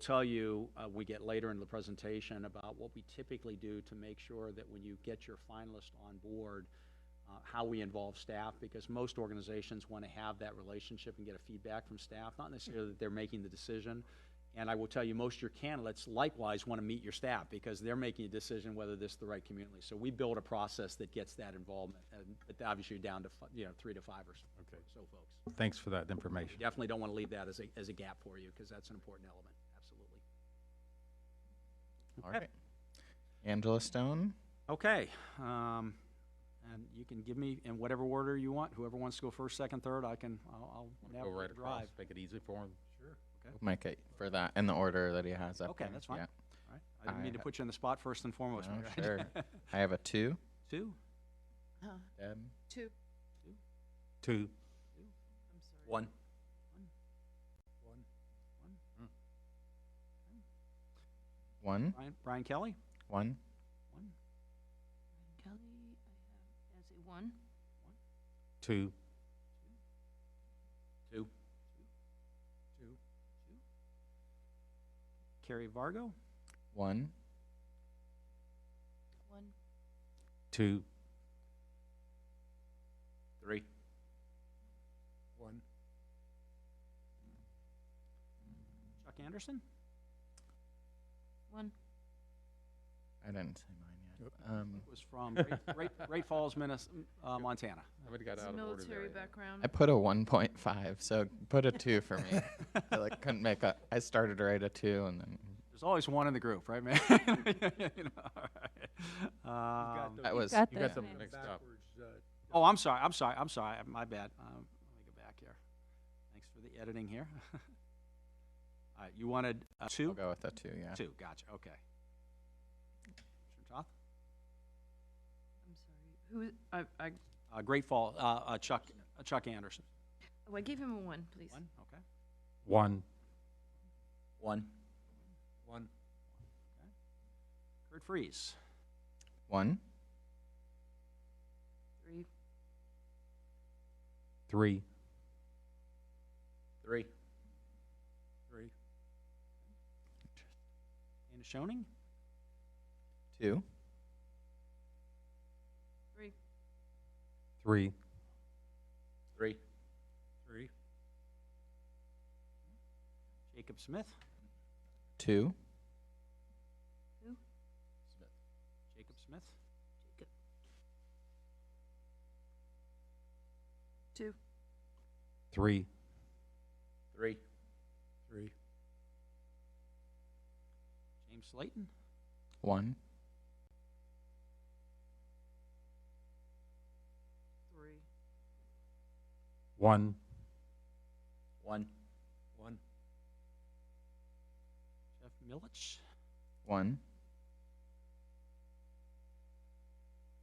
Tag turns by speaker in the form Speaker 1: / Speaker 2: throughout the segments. Speaker 1: tell you, uh, we get later in the presentation about what we typically do to make sure that when you get your finalist on board, uh, how we involve staff, because most organizations want to have that relationship and get a feedback from staff, not necessarily that they're making the decision. And I will tell you, most of your candidates likewise want to meet your staff, because they're making a decision whether this is the right community. So we build a process that gets that involvement, and but obviously down to, fi- you know, three to five or s-
Speaker 2: Okay.
Speaker 1: so folks.
Speaker 2: Thanks for that information.
Speaker 1: Definitely don't want to leave that as a, as a gap for you, because that's an important element, absolutely.
Speaker 3: All right. Angela Stone,
Speaker 1: Okay, um, and you can give me in whatever order you want, whoever wants to go first, second, third, I can, I'll, I'll
Speaker 2: Go right
Speaker 1: navigate,
Speaker 2: across,
Speaker 1: drive.
Speaker 2: make it easy for him.
Speaker 3: Mike, uh, for that in the order that he has up.
Speaker 1: Okay,
Speaker 3: there.
Speaker 1: that's fine.
Speaker 3: Yeah.
Speaker 1: All right. I didn't
Speaker 3: I
Speaker 1: mean to
Speaker 3: ha-
Speaker 1: put you on the spot first and foremost.
Speaker 3: No,
Speaker 1: Mary.
Speaker 3: sure. I have a two.
Speaker 1: Two?
Speaker 4: Uh,
Speaker 3: Deb,
Speaker 4: Two.
Speaker 2: Two.
Speaker 4: I'm sorry.
Speaker 1: One.
Speaker 3: one,
Speaker 1: Brian, Brian Kelly?
Speaker 3: one.
Speaker 1: One.
Speaker 4: Kelly, I have as a one.
Speaker 2: Two.
Speaker 1: Two. Two. Carrie Vargo?
Speaker 3: One.
Speaker 4: One.
Speaker 2: Two.
Speaker 1: Three.
Speaker 5: One,
Speaker 1: Chuck Anderson?
Speaker 4: One.
Speaker 3: I didn't say mine yet. Um,
Speaker 1: Was from Great- Great, Great Falls, Minnes, uh, Montana.
Speaker 2: Somebody got
Speaker 4: It's
Speaker 2: out of order
Speaker 4: military
Speaker 2: there.
Speaker 4: background.
Speaker 3: I put a 1.5, so put a two for me. I like couldn't make a. I started right at two, and then
Speaker 1: There's always one in the group, right, man? You know, all right. Um,
Speaker 3: that was.
Speaker 2: You got something
Speaker 5: one
Speaker 2: mixed up.
Speaker 5: backwards, uh,
Speaker 1: Oh, I'm sorry, I'm sorry, I'm sorry, my bad. Um, Let me go back here. Thanks for the editing here. All right, you wanted uh,
Speaker 3: I'll
Speaker 1: two?
Speaker 3: go with a two. Yeah.
Speaker 1: Two, gotcha, okay. Commissioner Toth?
Speaker 4: I'm sorry. Who, is- I, I,
Speaker 1: Uh, Great Fall, uh, uh, Chuck, uh, Chuck Anderson.
Speaker 4: oh, I gave him a one, please.
Speaker 1: One, okay.
Speaker 2: One.
Speaker 1: One.
Speaker 5: one,
Speaker 1: Kurt Freeze,
Speaker 3: One.
Speaker 4: Three.
Speaker 2: Three.
Speaker 1: Three.
Speaker 5: three,
Speaker 1: Anna Schoening?
Speaker 3: Two.
Speaker 4: Three.
Speaker 2: Three.
Speaker 1: Three.
Speaker 5: three,
Speaker 1: Jacob Smith?
Speaker 3: Two.
Speaker 1: Jacob Smith?
Speaker 4: Two.
Speaker 2: Three.
Speaker 1: Three.
Speaker 5: three,
Speaker 1: James Slayton?
Speaker 3: One.
Speaker 4: Three.
Speaker 2: One.
Speaker 1: One.
Speaker 5: one,
Speaker 1: Jeff Milich?
Speaker 3: One.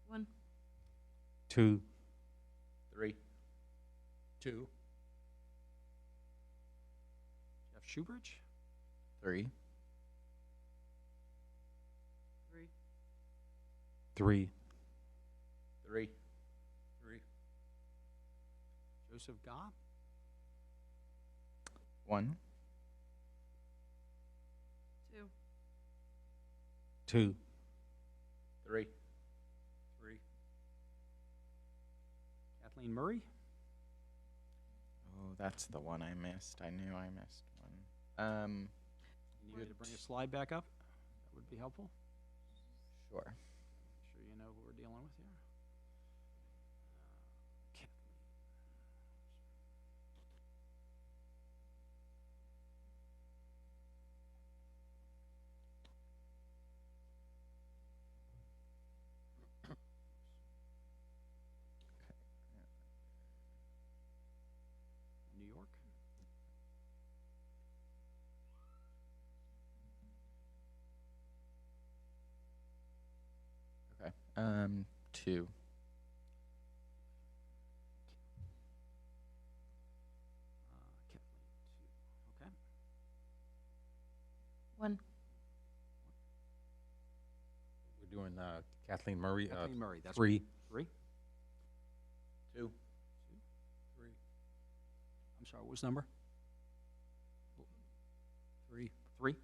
Speaker 4: One.
Speaker 2: Two.
Speaker 1: Three.
Speaker 5: two,
Speaker 1: Jeff Schubert?
Speaker 3: Three.
Speaker 4: Three.
Speaker 2: Three.
Speaker 1: Three.
Speaker 5: three,
Speaker 1: Joseph Gobb?
Speaker 3: One.
Speaker 4: Two.
Speaker 2: Two.
Speaker 1: Three.
Speaker 5: three,
Speaker 1: Kathleen Murray?
Speaker 3: Oh, that's the one I missed. I knew I missed one. Um,
Speaker 1: You need me to bring a slide back up? That would be helpful.
Speaker 3: sure.
Speaker 1: Make Sure you know who we're dealing with here. Uh, Kathleen. New York? uh,
Speaker 3: Okay. Um, two.
Speaker 1: Uh, Kathleen, two. Okay.
Speaker 4: One.
Speaker 2: We're doing uh, Kathleen Murray. Uh,
Speaker 1: Kathleen Murray, that's
Speaker 2: three.
Speaker 1: Three? Two.
Speaker 5: three,
Speaker 1: I'm sorry, what was the number?
Speaker 5: three,
Speaker 1: Three.